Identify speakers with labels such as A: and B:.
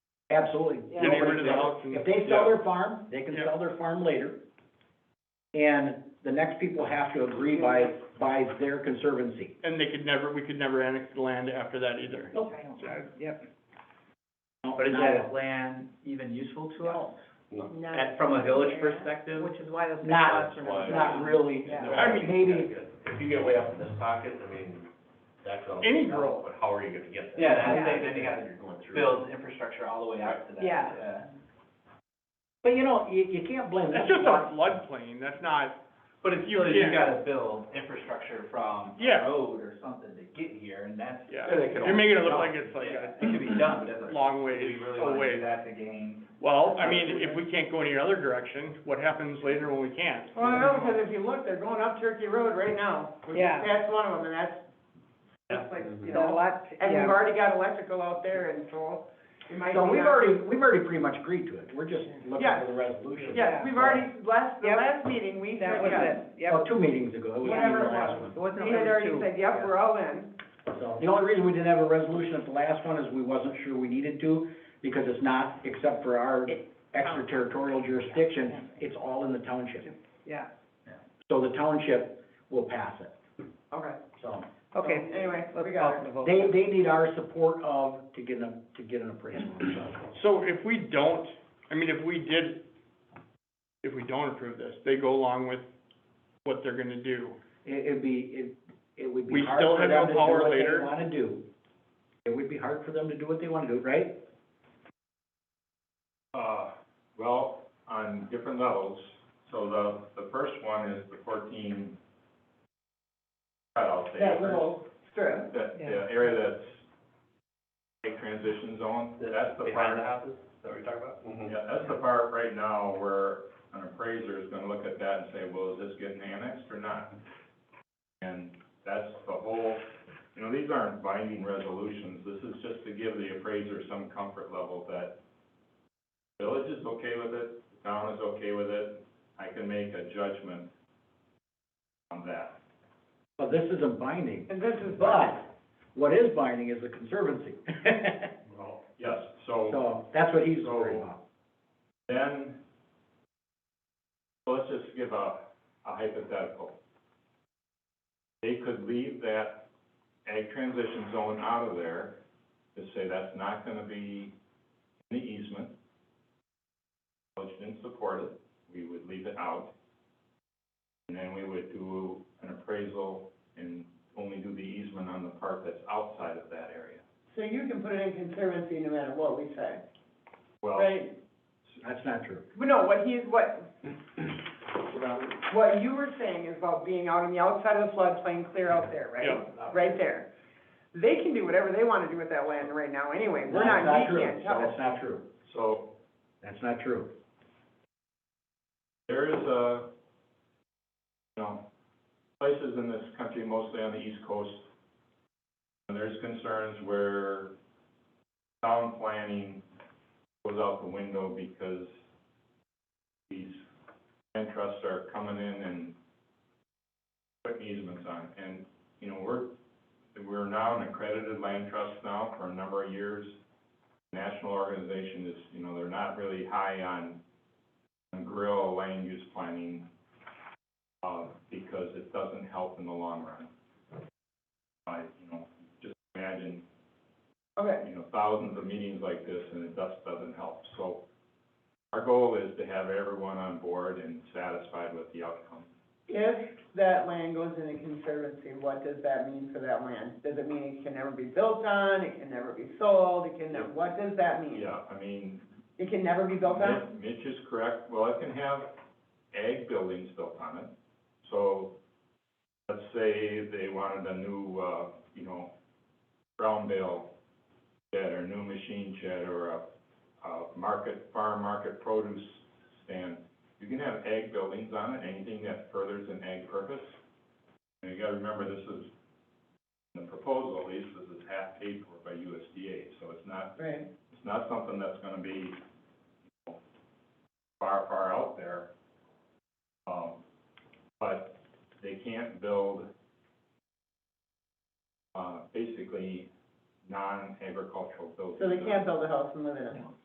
A: Absolutely.
B: Yeah. Getting rid of the auction.
A: If they sell
B: Yeah.
A: their farm, they can
B: Yeah.
A: sell their farm later. And the next people have to agree by, by their conservancy.
B: And they could never, we could never annex the land after that either.
A: Nope.
C: Yep.
D: But is that land even useful to us? At- From a village perspective?
C: Which is why those big
A: Not,
C: lots are not.
A: not really.
C: Yeah.
A: I mean, maybe,
E: If you get way up in this pocket, I mean, that's all.
B: Any growth.
E: But how are you gonna get that?
D: Yeah, that's
C: the thing,
D: then you gotta
E: You're going through.
D: Build infrastructure all the way out to that.
C: Yeah.
A: but you know, you, you can't blame them.
B: That's just our floodplain, that's not,
D: But it's
B: You
D: still, you
B: can't.
D: gotta build infrastructure from
B: Yeah.
D: a road or something to get here, and that's,
B: yeah,
E: Yeah, they could
B: you're making it look
D: all-
B: like it's like
D: yeah,
B: a
D: it could be done, but that's.
B: long
D: Do
B: way
D: we really wanna do
B: away.
D: that to gain?
B: Well, I mean, if we can't go any other direction, what happens later when we can't?
F: Well, I know, because if you look, they're going up Turkey Road right now.
C: Yeah.
F: That's one of them, and that's, that's like, you
C: There's a
F: know,
C: lot,
F: and
C: yeah.
F: we've already got electrical out there, and so it might be.
A: So we've
F: not-
A: already, we've already pretty much agreed to it. We're just looking
F: Yeah.
A: for the resolution.
F: Yes, we've already, last, the
C: Yep.
F: last meeting, we said,
C: That was
F: yes.
C: it,
A: Well,
C: yep.
A: two meetings ago, it was even
F: Whatever
A: the
F: it
A: last
F: was.
A: one.
C: It wasn't
F: We had
C: only
F: already
C: two.
F: said, yep, we're all in.
A: So, the only reason we didn't have a resolution at the last one is we wasn't sure we needed to, because it's not, except for our extraterritorial jurisdiction, it's all in the township.
C: Yeah,
A: So the township will pass it,
F: Okay.
A: so.
C: okay.
F: So, Anyway,
C: Let's
F: we
C: call
F: got
C: for
F: it.
C: the vote.
A: They, they need our support of, to get an, to get an appraisal, so.
B: So if we don't, I mean, if we did, if we don't approve this, they go along with what they're gonna do.
A: It, it'd be, it, it would be
B: We
A: hard
B: still
A: for
B: have
A: them
B: no
A: to do
B: power
A: what they
B: later.
A: wanna do. It would be hard for them to do what they wanna do, right?
G: Uh, well, on different levels, so the, the first one is the fourteen cutout there.
F: That little strip.
G: That,
C: Yeah.
G: the area that's a transition zone, that's the
E: Behind the
G: part,
E: houses, is that what you're talking about?
D: Mm-hmm.
G: yeah, that's the part right now where an appraiser is gonna look at that and say, well, is this getting annexed or not? And that's the whole, you know, these aren't binding resolutions, this is just to give the appraiser some comfort level that village is okay with it, town is okay with it, I can make a judgment on that.
A: Well, this isn't binding,
F: And this is.
A: but what is binding is the conservancy.
G: Well. Yes, so.
A: So, that's what he's worried
B: Oh.
A: about.
G: Then, let's just give a, a hypothetical. They could leave that ag transition zone out of there, to say that's not gonna be in the easement. Village didn't support it, we would leave it out. And then we would do an appraisal and only do the easement on the part that's outside of that area.
F: So you can put it in conservancy no matter what we say,
G: Well,
F: right?
A: That's not true.
F: But no, what he's, what, what you were saying is about being out on the outside of the floodplain, clear out there, right?
B: Yeah.
F: right there. They can do whatever they wanna do with that land right now anyway, we're
A: That's
F: not, we
A: true.
F: can't tell.
A: That's not true.
G: so
A: That's not true.
G: There is a, you know, places in this country, mostly on the east coast, and there's concerns where town planning goes out the window because these land trusts are coming in and putting easements on. And, you know, we're, we're now an accredited land trust now for a number of years. National organization is, you know, they're not really high on and grill land use planning, uh, because it doesn't help in the long run. I, you know, just imagine,
F: Okay,
G: you know, thousands of meetings like this and it just doesn't help. So our goal is to have everyone on board and satisfied with the outcome.
F: if that land goes into conservancy, what does that mean for that land? Does it mean it can never be built on, it can never be sold, it can, never- what does that mean?
G: Yeah, I mean,
F: It can never be built on?
G: Mi- Mitch is correct, well, it can have ag buildings built on it, so, let's say they wanted a new, uh, you know, brown bale shed, or new machine shed, or a, a market, farm market produce stand, you can have ag buildings on it, anything that furthers an ag purpose. And you gotta remember, this is, in the proposal, at least, this is half paid for by USDA, so it's not
F: Right.
G: it's not something that's gonna be you know, far, far out there. Um, but they can't build, uh, basically non-agricultural buildings.
F: So they can't build a house and live in it?